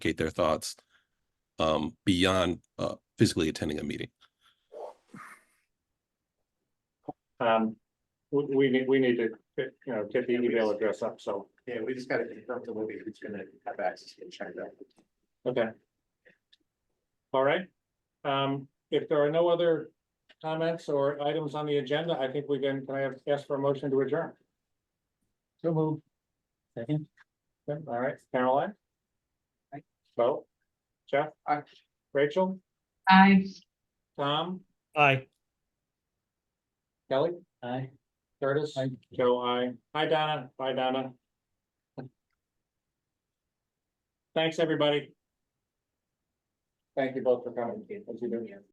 communicate their thoughts um, beyond uh, physically attending a meeting. Um, we, we need, we need to, you know, get the email address up, so, Yeah, we just gotta confirm the movie who's gonna have access to check that. okay. All right, um, if there are no other comments or items on the agenda, I think we can, can I have- ask for a motion to adjourn? So move. Second. All right, Caroline? Aye. Bo? Jeff? Aye. Rachel? Aye. Tom? Aye. Kelly? Aye. Curtis? Aye. Joe, I. Hi, Donna. Bye, Donna. Thanks, everybody. Thank you both for coming. As you do.